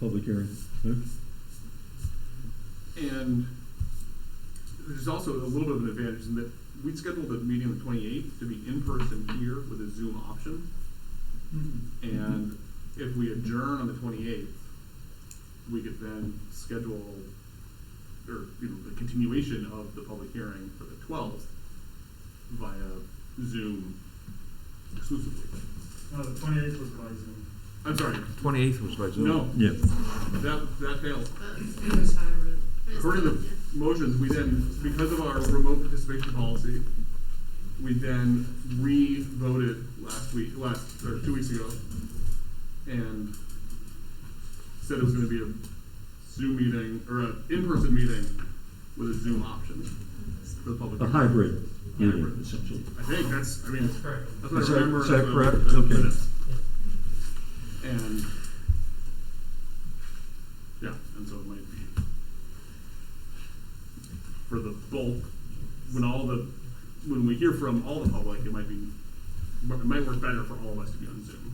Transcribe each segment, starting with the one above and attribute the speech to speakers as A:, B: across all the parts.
A: public hearing. Okay.
B: And there's also a little bit of an advantage in that we'd scheduled the meeting on the twenty-eighth to be in person here with a Zoom option.
C: Hmm.
B: And if we adjourn on the twenty-eighth, we could then schedule, or, you know, the continuation of the public hearing for the twelfth via Zoom exclusively.
C: No, the Uh, twenty-eighth was by Zoom.
B: I'm sorry,
D: Twenty-eighth was by Zoom.
B: no,
A: Yeah,
B: that, that failed.
E: That's it was hybrid. It's
B: According to
E: not-
B: the
E: yeah.
B: motions, we then, because of our remote participation policy, we then re-voted last week, last, or two weeks ago, and said it was gonna be a Zoom meeting, or an in-person meeting with a Zoom option for the public.
A: a hybrid meeting,
B: Hybrid.
A: essentially.
B: I think that's, I mean,
C: correct.
B: that's what
A: Is
B: I
A: that-
B: remember.
A: is that
B: that's what I-
A: correct?
B: that's what
A: Okay.
B: it is. And, yeah, and so it might be for the bulk, when all the, when we hear from all the public, it might be, it might work better for all of us to be on Zoom,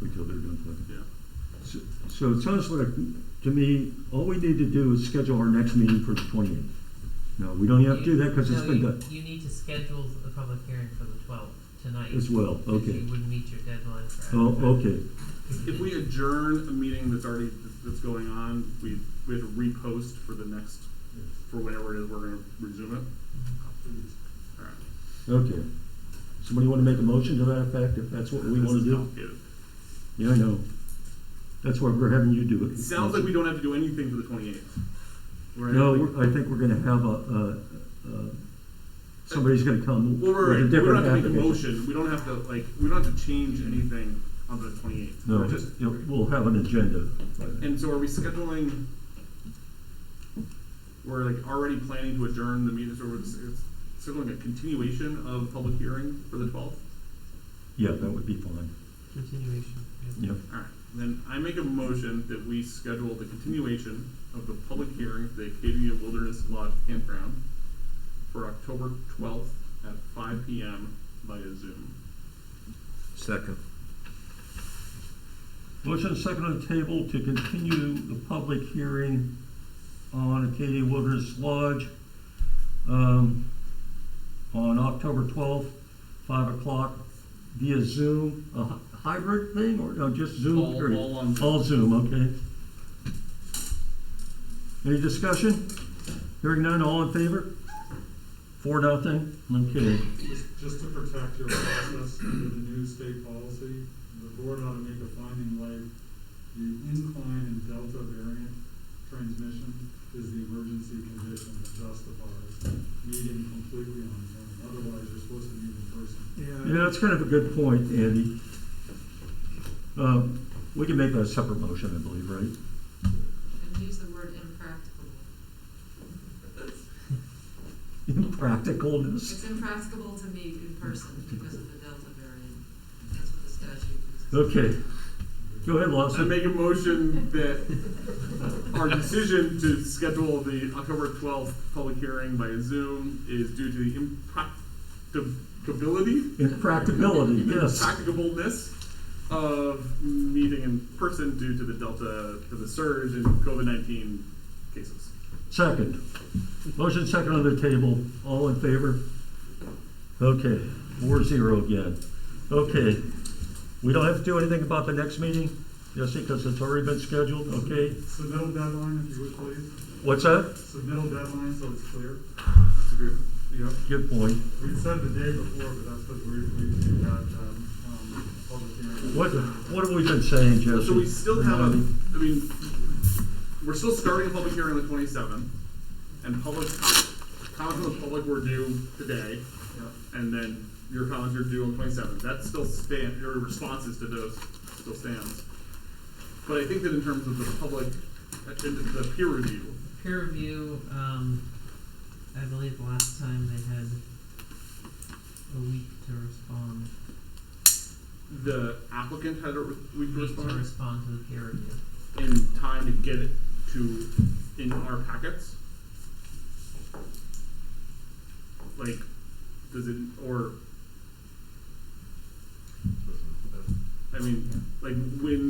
A: Wait till they're done talking.
B: yeah.
A: So- So it sounds like, to me, all we need to do is schedule our next meeting for the twenty-eighth. No, we don't have to do that because it's
F: No,
A: been
F: you-
A: done
F: You need to schedule the public hearing for the twelfth tonight.
A: as well,
F: because
A: okay.
F: You wouldn't meet your deadline for.
A: Oh,
F: advertising.
A: okay,
B: If we adjourn a meeting that's already, that's going on, we, we have to repost for the next, for whenever it is, we're gonna resume it.
A: Mm-hmm.
B: Alright.
A: okay. Somebody want to make a motion to that effect, if that's what we
B: This
A: want to
B: is
A: do?
B: complicated.
A: Yeah, I know. That's why we're having you do it.
B: It sounds like we don't have to do anything for the twenty-eighth.
A: No, we're- I think we're gonna have a, uh, uh, somebody's gonna come
B: Well,
A: with
B: right, right,
A: a
B: we don't
A: different
B: have to make a
A: application.
B: motion, we don't have to, like, we don't have to change anything on the twenty-eighth.
A: No,
B: just
A: you know, we'll have an agenda. by then.
B: And so are we scheduling, we're like already planning to adjourn the meeting, so we're s- it's scheduling a continuation of public hearing for the twelfth?
A: Yeah, that would be fine,
F: Continuation.
A: yeah.
B: Alright, then I make a motion that we schedule the continuation of the public hearing for the Acadia Wilderness Lodge Campground for October twelfth at five P M via Zoom.
D: Second.
A: Motion and second on the table to continue the public hearing on Acadia Wilderness Lodge um, on October twelfth, five o'clock via Zoom, a hy- hybrid thing or no, just Zoom?
B: All,
A: period?
B: all on Zoom.
A: All Zoom, okay. Any discussion? Hearing none, all in favor? Four, nothing, okay.
C: Just, just to protect your process under the new state policy, the board ought to make a finding like the incline and delta variant transmission is the emergency condition that justifies meeting completely on Zoom. Otherwise, you're supposed to meet in person.
A: Yeah, that's kind of a good point, Andy. Um, We can make that a separate motion, I believe, right?
E: And use the word impracticable.
A: Impracticalness.
E: It's impracticable to meet in person because of the Delta variant. That's what the statute is.
A: Okay. Go ahead,
B: I
A: Lawson.
B: make a motion that our decision to schedule the October twelfth public hearing by Zoom is due to the impracticability,
A: Impracticability, yes.
B: impracticableness of meeting in person due to the Delta, to the surge in COVID nineteen cases.
A: Second. Motion second on the table. All in favor? Okay, four zero again. Okay. We don't have to do anything about the next meeting, Jesse, because it's already been scheduled, okay?
C: Submittal deadline, if you would please.
A: What's that?
C: Submittal deadline, so it's clear.
B: That's a good, yep.
A: Good point.
C: We said the day before, but that's because we, we had, um, um, public hearing.
A: What, what have we been saying, Jesse?
B: So we still have a,
A: Remind me.
B: I mean, we're still starting a public hearing on the twenty-seventh, and public, com- comments from the public were due today, and then your comments are due on the twenty-seventh. That still stand, your responses to those still stands. But I think that in terms of the public, uh, in the peer review,
F: Peer review, um, I believe last time they had a week to respond,
B: the applicant had a re- week to
F: week to
B: respond
F: respond to the peer review.
B: in time to get it to, in our packets. Like, does it, or I mean, like when